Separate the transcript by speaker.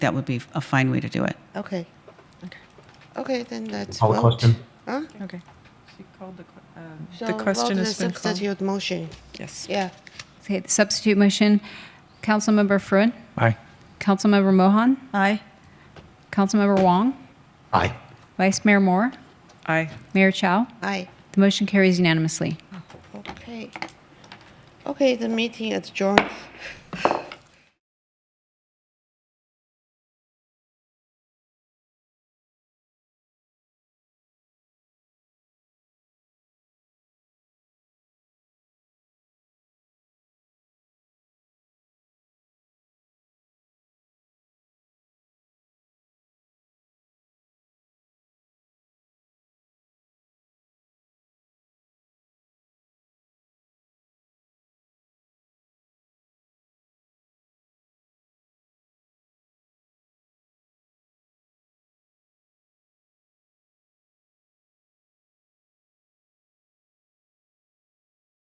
Speaker 1: that would be a fine way to do it.
Speaker 2: Okay.
Speaker 3: Okay.
Speaker 2: Okay, then let's
Speaker 4: Call the
Speaker 2: vote.
Speaker 4: question.
Speaker 2: Huh?
Speaker 3: Okay.
Speaker 5: She called the, que- um,
Speaker 2: So
Speaker 3: The question
Speaker 2: vote
Speaker 3: has
Speaker 2: the
Speaker 3: been called.
Speaker 2: substitute motion.
Speaker 3: Yes.
Speaker 2: Yeah.
Speaker 6: Okay, the substitute motion, Councilmember Fruin,
Speaker 4: Aye.
Speaker 6: Councilmember Mohan,
Speaker 3: Aye.
Speaker 6: Councilmember Wong,
Speaker 4: Aye.
Speaker 6: Vice Mayor Moore,
Speaker 5: aye.
Speaker 6: Mayor Chow.
Speaker 2: Aye.
Speaker 6: The motion carries unanimously.
Speaker 2: Okay. Okay, the meeting adjourned.